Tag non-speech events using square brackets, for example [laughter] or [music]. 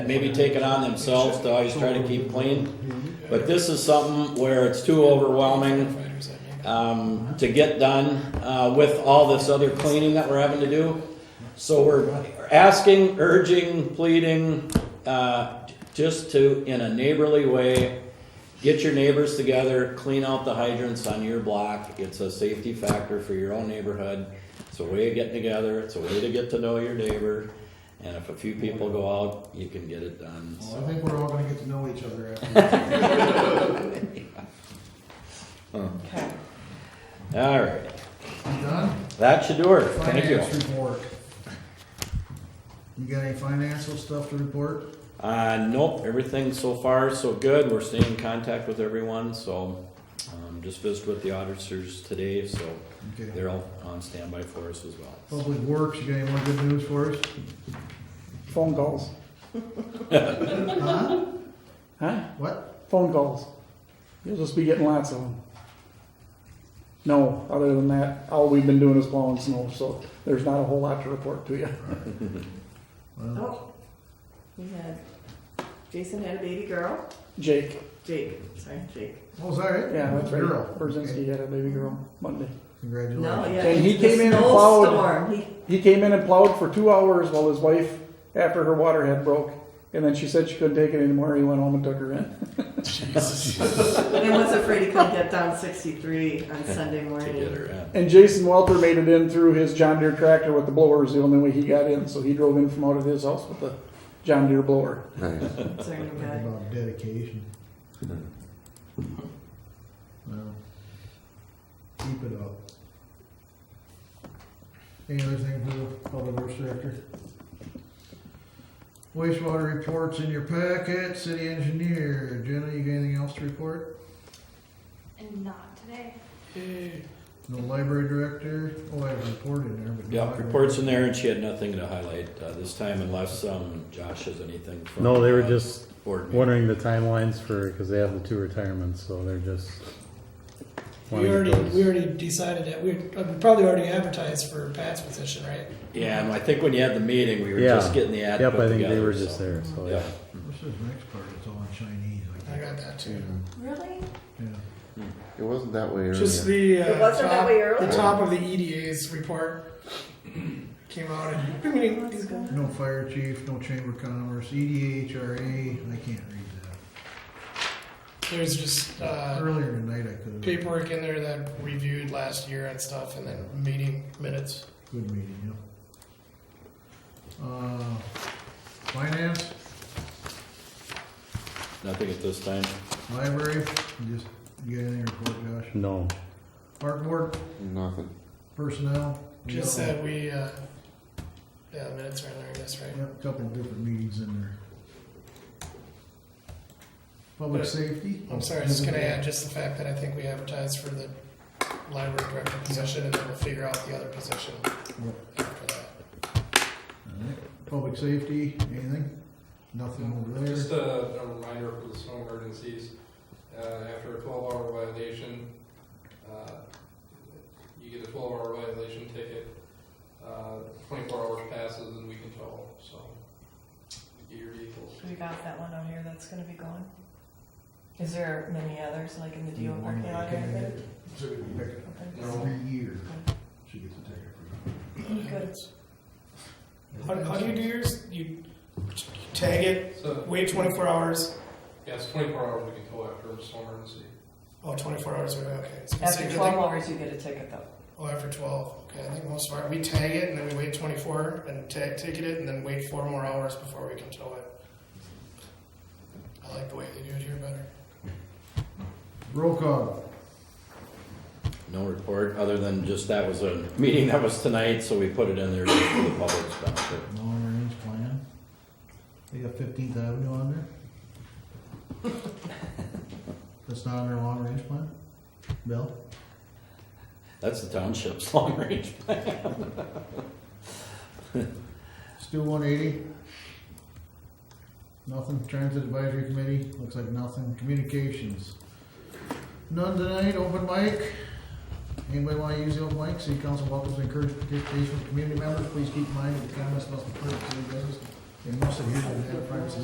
maybe take it on themselves to always try to keep clean. But this is something where it's too overwhelming um, to get done uh, with all this other cleaning that we're having to do. So we're asking, urging, pleading, uh, just to, in a neighborly way, get your neighbors together, clean out the hydrants on your block. It's a safety factor for your own neighborhood. It's a way of getting together, it's a way to get to know your neighbor. And if a few people go out, you can get it done, so. Well, I think we're all gonna get to know each other [laughs] after. Okay. All right, You done? that should do it. Thank you. Finance report. You got any financial stuff to report? Uh, nope, everything so far so good. We're staying in contact with everyone, so, um, just visited with the auditors today, so Okay. they're all on standby for us as well. Public Works, you got any more good news for us? Phone calls, Huh? huh? What? Phone calls. You'll just be getting lots of them. No, other than that, all we've been doing is plowing snow, so there's not a whole lot to report to you. Well, Oh, he had, Jason had a baby girl. Jake, Jake, sorry, Jake. Oh, is that it? yeah, that's right. Girl. Brzezinski had a baby girl Monday. Congratulations. No, yeah. And he the came in and plowed. snowstorm. He, He came in and plowed for two hours while his wife, after her water had broke, and then she said she couldn't take it anymore. He went home and took her in. and I was afraid he couldn't get down 63 on Sunday To Oh. morning. get her in. And Jason Welter made it in through his John Deere tractor with the blower is the only way he got in, so he drove in from out of his house with the John Deere blower. It's our new Think guy. about dedication. Hmm. Well, keep it up. Any other thing for the public works director? Wastewater reports in your packet, city engineer, Jenna, you got anything else to report? And not today. No library director, oh, I have a report in there, but. no Yeah, library. reports in there, and she had nothing to highlight, uh, this time unless, um, Josh has anything from. No, they were uh, just Board meeting. wondering the timelines for, because they have the two retirements, so they're just. We wanting to already, close. we already decided that, we, uh, we probably already advertised for Pat's position, right? Yeah, and I think when you had the meeting, we were Yeah. just getting the ad Yep, put I think they together, were so- just there, so, Yeah. yeah. What's this next part, it's all in Chinese, I I think, got that too. Really? yeah. It wasn't that way Just earlier. the, It uh, wasn't that top, way earlier? the top of the EDA's report came out and, I mean, he's good. No fire chief, no chamber of commerce, E EDA, HRA, I can't read that. there's just, uh, Earlier tonight I could have. paperwork in there that we reviewed last year and stuff and then meeting minutes. Good meeting, yeah. Uh, Finance, Nothing at this time. library, you just, you got anything to report, Josh? No, Park board, Nothing. personnel? we Just got- that we, uh, yeah, the minutes are in there, I guess, right? yeah, a Couple of different meetings in there. Public But- safety? I'm sorry, I was just gonna add just the fact that I think we advertised for the library director position and then we'll figure out the other position after that. Alright. Public safety, anything? Nothing over there? Just a, a reminder for the snow emergencies, uh, after a twelve hour violation, uh, you get a twelve hour violation ticket, uh, twenty-four hours passes and we can tow, so get your vehicles. We got that one out here that's going to be going. Is there many others like in the DO Mm, parking lot or anything? No. Every year, she gets a ticket for Good. that. How, how do you do yours? You tag it, So, wait 24 hours. yeah, it's twenty-four hours we can tow after a snow emergency. Oh, 24 hours, okay. So you After think- 12 hours, you get a ticket though. Oh, after 12. Okay, I think most of our, we tag it and then we wait 24 and tag, ticket it and then wait four more hours before we can tow it. I like the way they do it here better. Roll call, No report, other than just that was a meeting that was tonight, so we put it in there just for the public's benefit. long range plan. They got Fifteenth Avenue on there? [laughs] That's not on their long range plan? Bill? That's the township's [laughs] long range. Stu one eighty? Nothing, Transit Advisory Committee, looks like nothing, communications. None tonight, open mic. Anybody wanna use the open mic, city council welcomes and encourages participation from community members, please keep in mind that the comments must be heard, and most of you have privacy